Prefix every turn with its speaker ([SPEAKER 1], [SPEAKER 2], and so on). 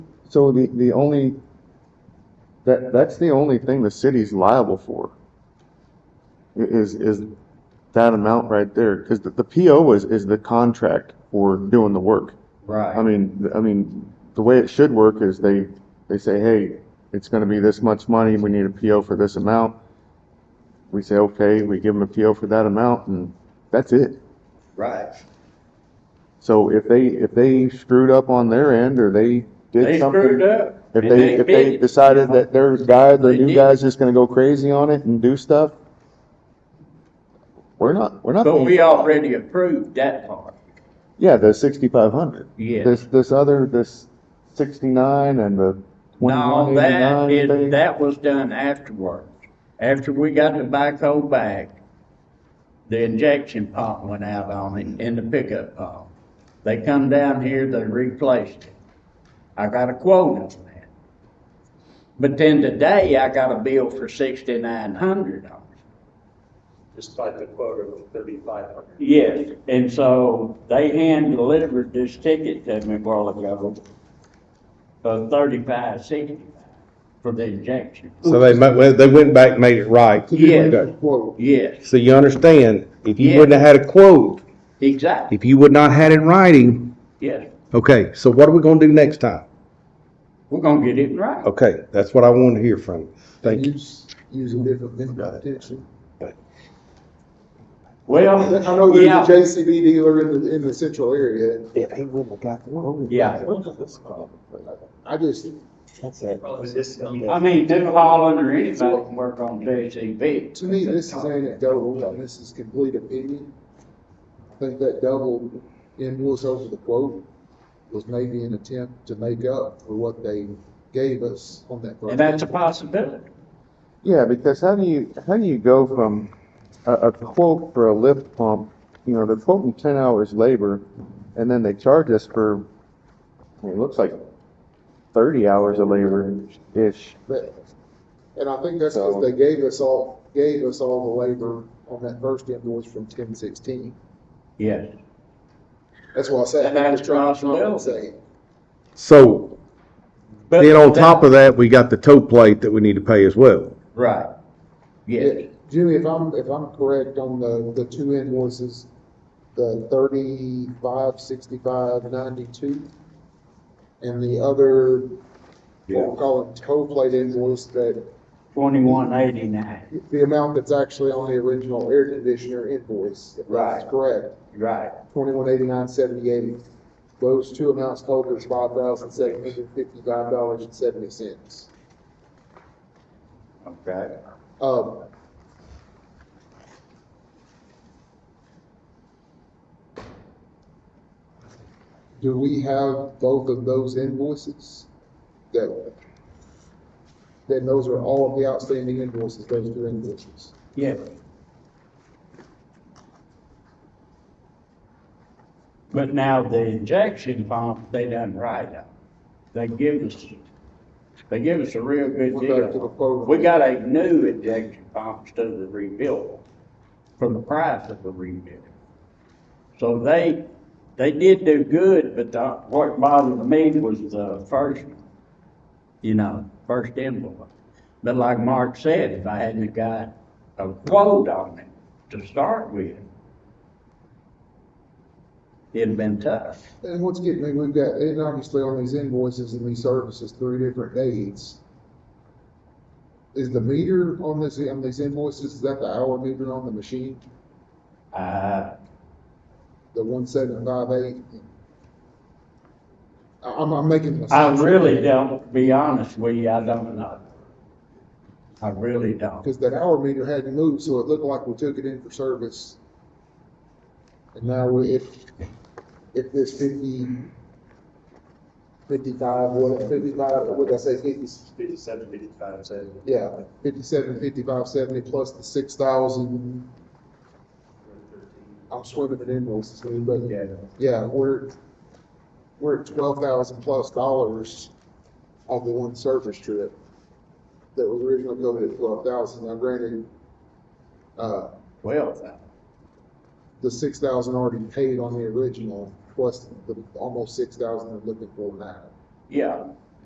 [SPEAKER 1] So the, the only, that, that's the only thing the city's liable for. i- Is, is that amount right there, because the, the PO is, is the contract for doing the work. I
[SPEAKER 2] Right.
[SPEAKER 1] mean, th- I mean, the way it should work is they, they say, hey, it's gonna be this much money, we need a PO for this amount. We say, okay, we give them a PO for that amount, and that's it.
[SPEAKER 2] Right.
[SPEAKER 1] So if they, if they screwed up on their end, or they
[SPEAKER 3] They
[SPEAKER 1] did
[SPEAKER 3] screwed
[SPEAKER 1] something,
[SPEAKER 3] up.
[SPEAKER 1] if
[SPEAKER 3] and
[SPEAKER 1] they, if they
[SPEAKER 3] bid it.
[SPEAKER 1] decided that their guy, their
[SPEAKER 3] They
[SPEAKER 1] new
[SPEAKER 3] did.
[SPEAKER 1] guy's just gonna go crazy on it and do stuff, we're not, we're not.
[SPEAKER 3] But
[SPEAKER 1] paying-
[SPEAKER 3] we already approved that part.
[SPEAKER 1] Yeah, the sixty-five hundred.
[SPEAKER 3] Yes.
[SPEAKER 1] This, this other, this sixty-nine and the
[SPEAKER 3] No,
[SPEAKER 1] twenty-one
[SPEAKER 3] that
[SPEAKER 1] eighty-nine
[SPEAKER 3] is,
[SPEAKER 1] thing.
[SPEAKER 3] that was done afterwards. After we got the backhoe back, the injection pump went out on it and the pickup pump. They come down here, they replaced it. I got a quote on that. But then today I got a bill for sixty-nine hundred on it.
[SPEAKER 4] despite the quota of thirty-five hundred.
[SPEAKER 3] Yes, and so they hand delivered this ticket to me a while ago for thirty-five sixty-five for the injection.
[SPEAKER 5] So they, ma- well, they went back, and made it right.
[SPEAKER 3] Yes,
[SPEAKER 5] Okay.
[SPEAKER 3] yes,
[SPEAKER 5] So you understand, if you
[SPEAKER 3] Yeah.
[SPEAKER 5] wouldn't have had a quote,
[SPEAKER 3] exactly,
[SPEAKER 5] if you would not had it in writing,
[SPEAKER 3] yes.
[SPEAKER 5] okay, so what are we gonna do next time?
[SPEAKER 3] We're gonna get it right.
[SPEAKER 5] Okay, that's what I want to hear from you. Thank you.
[SPEAKER 2] Use, use a different mentality.
[SPEAKER 3] Well,
[SPEAKER 2] I know there's
[SPEAKER 3] yeah,
[SPEAKER 2] a JCB dealer in the, in the central area.
[SPEAKER 3] yeah.
[SPEAKER 2] I just,
[SPEAKER 4] Probably this, I mean,
[SPEAKER 3] I mean, New Holland or anybody can work on JCB.
[SPEAKER 2] to me, this is anecdotal, and this is complete opinion. I think that double in Wool's over the quote was maybe an attempt to make up for what they gave us on that.
[SPEAKER 3] And that's a possibility.
[SPEAKER 1] Yeah, because how do you, how do you go from a, a quote for a lift pump, you know, they're quoting ten hours labor, and then they charge us for, I mean, it looks like thirty hours of labor-ish.
[SPEAKER 2] But- And I think that's because they gave us all, gave us all the labor on that first invoice from ten sixteen.
[SPEAKER 3] Yes.
[SPEAKER 2] That's why I said,
[SPEAKER 3] And
[SPEAKER 2] I
[SPEAKER 3] that's
[SPEAKER 2] was trying to
[SPEAKER 3] possible.
[SPEAKER 2] compensate.
[SPEAKER 5] So
[SPEAKER 3] But
[SPEAKER 5] then on top of that, we got the tow plate that we need to pay as well.
[SPEAKER 3] Right. Yes,
[SPEAKER 2] Yeah, Jimmy, if I'm, if I'm correct on the, the two invoices, the thirty-five, sixty-five, ninety-two, and the other, we'll call it tow plate invoice, that,
[SPEAKER 3] twenty-one eighty-nine,
[SPEAKER 2] the amount that's actually on the original air conditioner invoice. if that's
[SPEAKER 3] Right.
[SPEAKER 2] Correct,
[SPEAKER 3] right.
[SPEAKER 2] twenty-one eighty-nine, seventy-eight. Those two amounts total is five thousand seven hundred fifty-five dollars and seventy cents.
[SPEAKER 3] Okay.
[SPEAKER 2] Um. Do we have both of those invoices? That, then those are all of the outstanding invoices, those two invoices.
[SPEAKER 3] Yes. But now the injection pump, they done right now. They give us, they give us a real good
[SPEAKER 2] We're back to the
[SPEAKER 3] deal.
[SPEAKER 2] quote.
[SPEAKER 3] We got a new injection pump instead of the rebuild, for the price of the rebuild. So they, they did do good, but the, what bothered me was the first, you know, first invoice. But like Mark said, if I hadn't got a quote on it to start with, it'd been tough.
[SPEAKER 2] And what's getting me, we've got, and obviously on these invoices and these services, three different dates. Is the meter on this, on these invoices, is that the hour meter on the machine,
[SPEAKER 3] Uh,
[SPEAKER 2] the one seven five eight? I'm, I'm making. an
[SPEAKER 3] I
[SPEAKER 2] assumption.
[SPEAKER 3] really don't, be honest with you, I don't know. I really don't.
[SPEAKER 2] Because that hour meter hadn't moved, so it looked like we took it in for service. And now we- if, if this fifty, fifty-five, what, fifty-five, what did I say, fifty,
[SPEAKER 4] fifty-seven, fifty-five, so
[SPEAKER 2] yeah, fifty-seven, fifty-five, seventy, plus the six thousand, I'm swimming in invoices, here, but, yeah, we're, we're at twelve thousand plus dollars on the one service trip that was originally billed at twelve thousand, now granted, uh,
[SPEAKER 3] Well,
[SPEAKER 2] the six thousand already paid on the original, plus the almost six thousand they're looking for now.
[SPEAKER 3] yeah,